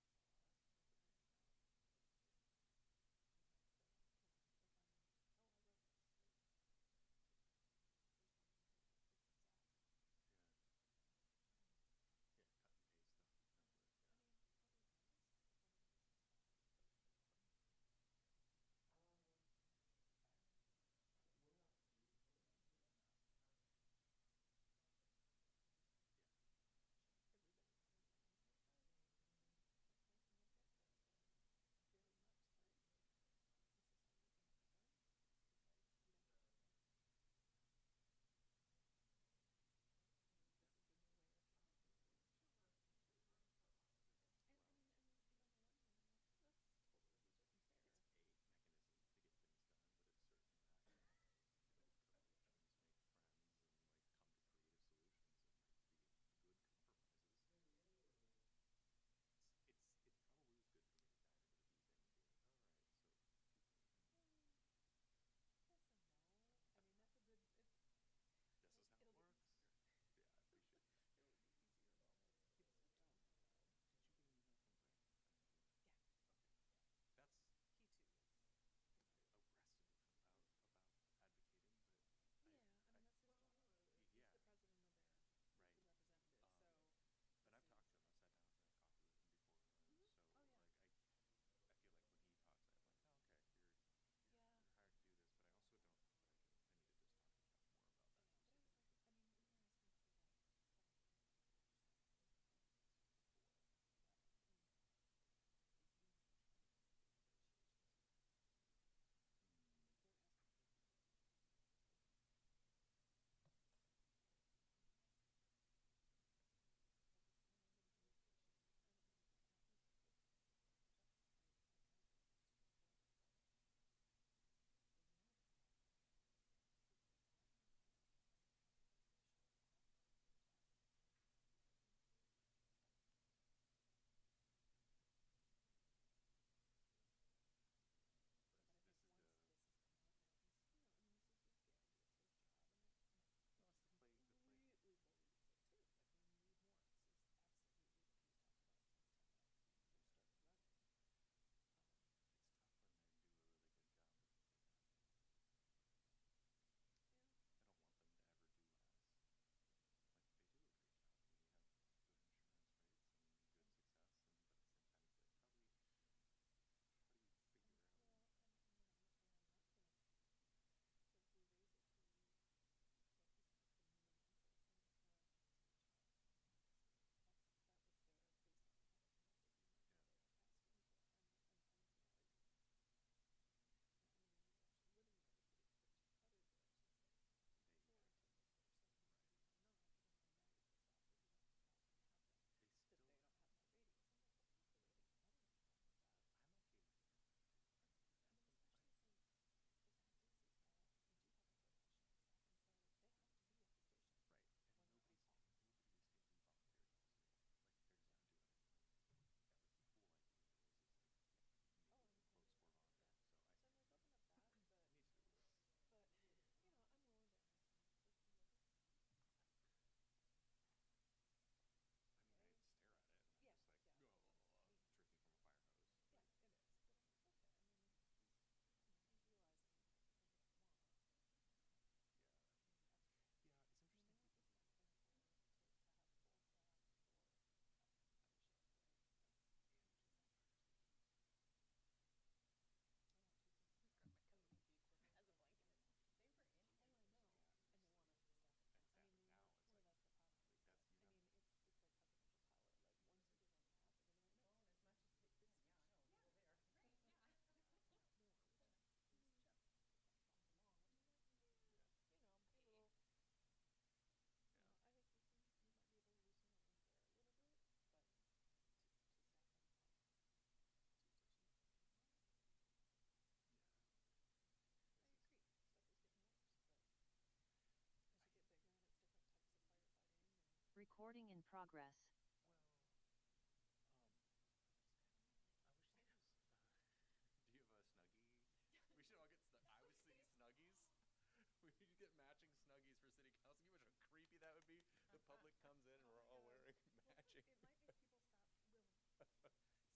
Recording in progress. Well, um, I wish there was. do you have a snuggie? we should all get. Snu- I was thinking snuggies. We should get matching snuggies for city council. Can you imagine how creepy that would be? The public comes in and we're